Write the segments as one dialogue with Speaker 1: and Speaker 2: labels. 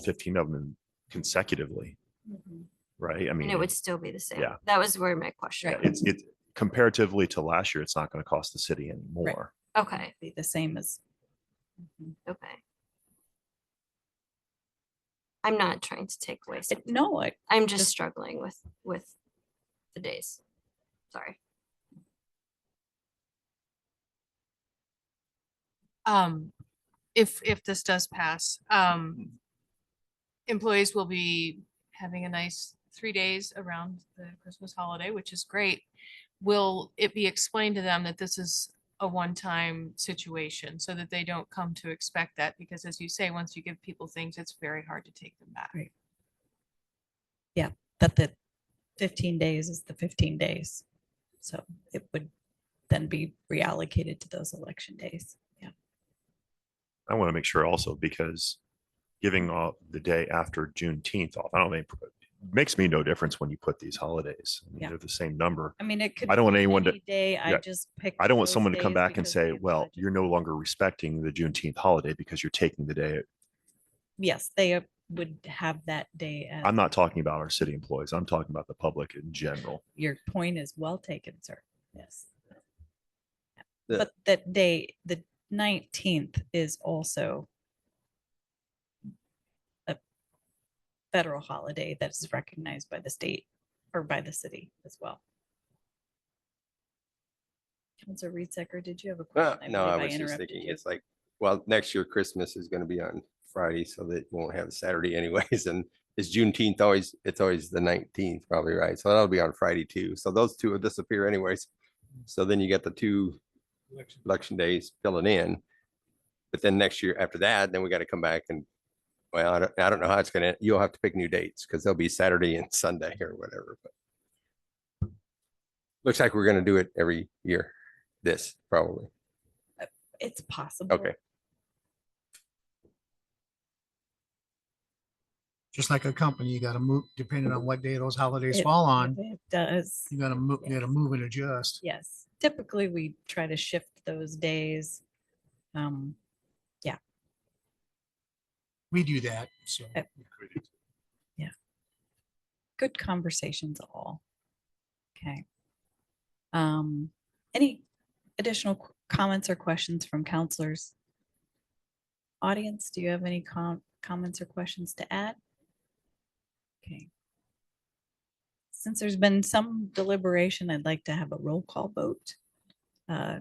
Speaker 1: fifteen of them consecutively, right? I mean,
Speaker 2: And it would still be the same.
Speaker 1: yeah.
Speaker 2: That was where my question.
Speaker 3: Right.
Speaker 1: it's, it's comparatively to last year, it's not going to cost the city anymore.
Speaker 2: Okay,
Speaker 3: be the same as. Mhm.
Speaker 2: okay. I'm not trying to take away.
Speaker 3: It-
Speaker 2: something.
Speaker 3: No, I,
Speaker 2: I'm just
Speaker 3: just-
Speaker 2: struggling with, with the days. Sorry.
Speaker 4: um, if, if this does pass, um, employees will be having a nice three days around the Christmas holiday, which is great. Will it be explained to them that this is a one-time situation so that they don't come to expect that? Because as you say, once you give people things, it's very hard to take them back.
Speaker 3: Right. that the fifteen days is the fifteen days. So it would then be reallocated to those election days. Yeah.
Speaker 1: I want to make sure also because giving off the day after Juneteenth off, I don't think makes me no difference when you put these holidays. I mean,
Speaker 3: Yeah.
Speaker 1: They're the same number.
Speaker 3: I mean, it could.
Speaker 1: I don't want
Speaker 3: be
Speaker 1: anyone to-
Speaker 3: any Day, I
Speaker 1: yeah.
Speaker 3: just pick.
Speaker 1: I don't want someone to come back and say, well, you're no longer respecting the Juneteenth holiday because you're taking the day.
Speaker 3: Yes, they uh, would have that day. as-
Speaker 1: I'm not talking about our city employees. I'm talking about the public in general.
Speaker 3: Your point is well taken, sir. Yes.
Speaker 5: The-
Speaker 3: But that day, the nineteenth is also a federal holiday that is recognized by the state or by the city as well. Counselor Reed Secker, did you have a
Speaker 6: Uh,
Speaker 3: question?
Speaker 6: No, I
Speaker 3: believe
Speaker 6: was just
Speaker 3: interrupted
Speaker 6: thinking,
Speaker 3: you.
Speaker 6: it's like, well, next year Christmas is gonna be on Friday, so that you won't have a Saturday anyways, and it's Juneteenth always, it's always the nineteenth probably, right? So that'll be on Friday too, so those two will disappear anyways. So then you get the two election days filling in. But then next year after that, then we gotta come back and, well, I don't, I don't know how it's gonna, you'll have to pick new dates, because they'll be Saturday and Sunday or whatever, but. Looks like we're gonna do it every year, this probably.
Speaker 3: It's possible.
Speaker 7: just like a company, you gotta move, depending on what day those holidays
Speaker 3: It-
Speaker 7: fall on,
Speaker 3: It does.
Speaker 7: you gotta move, you gotta move and adjust.
Speaker 3: Yes, typically we try to shift those days. Um,
Speaker 7: We do that, so.
Speaker 3: Uh, good conversations all. Okay. Um, any additional qu- comments or questions from counselors? Audience, do you have any com- comments or questions to add? Okay. Since there's been some deliberation, I'd like to have a roll call vote. Uh,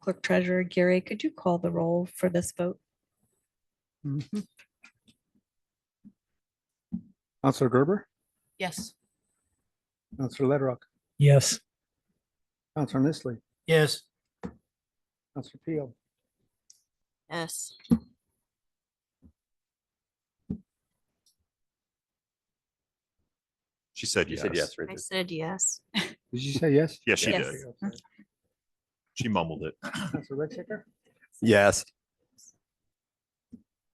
Speaker 3: Clerk Treasurer Gary, could you call the roll for this vote?
Speaker 8: Counselor Gerber,
Speaker 4: Yes.
Speaker 8: Counselor Ledrock,
Speaker 9: Yes.
Speaker 8: Counselor Nestle,
Speaker 7: Yes.
Speaker 8: Counselor Peel,
Speaker 2: Yes.
Speaker 1: She said
Speaker 6: You said yes,
Speaker 1: yes.
Speaker 2: I
Speaker 6: Richard.
Speaker 2: said yes.
Speaker 8: did you say yes?
Speaker 1: Yes, she
Speaker 3: Yes.
Speaker 1: did. She mumbled it.
Speaker 8: Counselor Rexicker,
Speaker 6: Yes.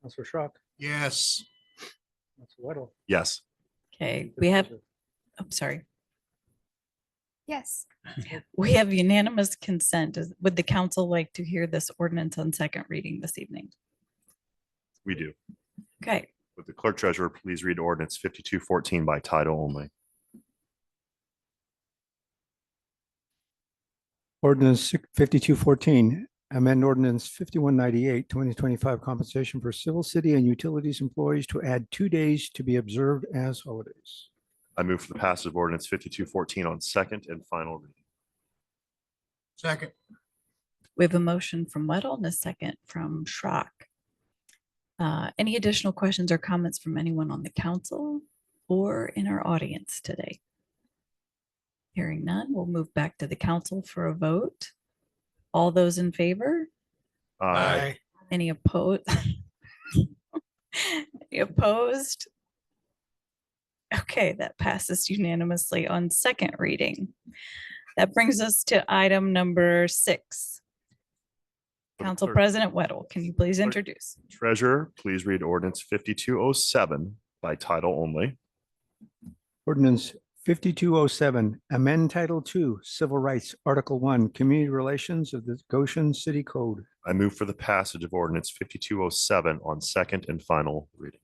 Speaker 8: Counselor Schrock,
Speaker 7: Yes.
Speaker 8: Counselor Weddle.
Speaker 1: Yes.
Speaker 3: Okay,
Speaker 8: Mr.
Speaker 3: we have,
Speaker 8: President.
Speaker 3: I'm Oh, sorry.
Speaker 2: Yes.
Speaker 3: We have unanimous consent. Does- Would the council like to hear this ordinance on second reading this evening?
Speaker 1: We do.
Speaker 3: Okay,
Speaker 1: Would the clerk treasurer please read ordinance fifty-two fourteen by title only?
Speaker 8: Ordinance fifty-two fourteen, amend ordinance fifty-one ninety-eight, twenty twenty-five compensation for civil city and utilities employees to add two days to be observed as holidays.
Speaker 1: I move for the passage of ordinance fifty-two fourteen on second and final reading.
Speaker 7: Second,
Speaker 3: we have a motion from Weddle and a second from Schrock. Uh, Any additional questions or comments from anyone on the council or in our audience today? Hearing none, we'll move back to the council for a vote. All those in favor?
Speaker 1: Aye.
Speaker 7: aye,
Speaker 3: Any opposed? Any opposed? Okay, that passes unanimously on second reading. That brings us to item number six.
Speaker 1: For the
Speaker 3: Council
Speaker 1: clerk-
Speaker 3: President Weddle, can you please
Speaker 1: Clerk-
Speaker 3: introduce?
Speaker 1: Treasurer, please read ordinance fifty-two oh seven by title only.
Speaker 8: Ordinance fifty-two oh seven, amend Title Two, Civil Rights, Article One, Community Relations of the Goshen City Code.
Speaker 1: I move for the passage of ordinance fifty-two oh seven on second and final reading.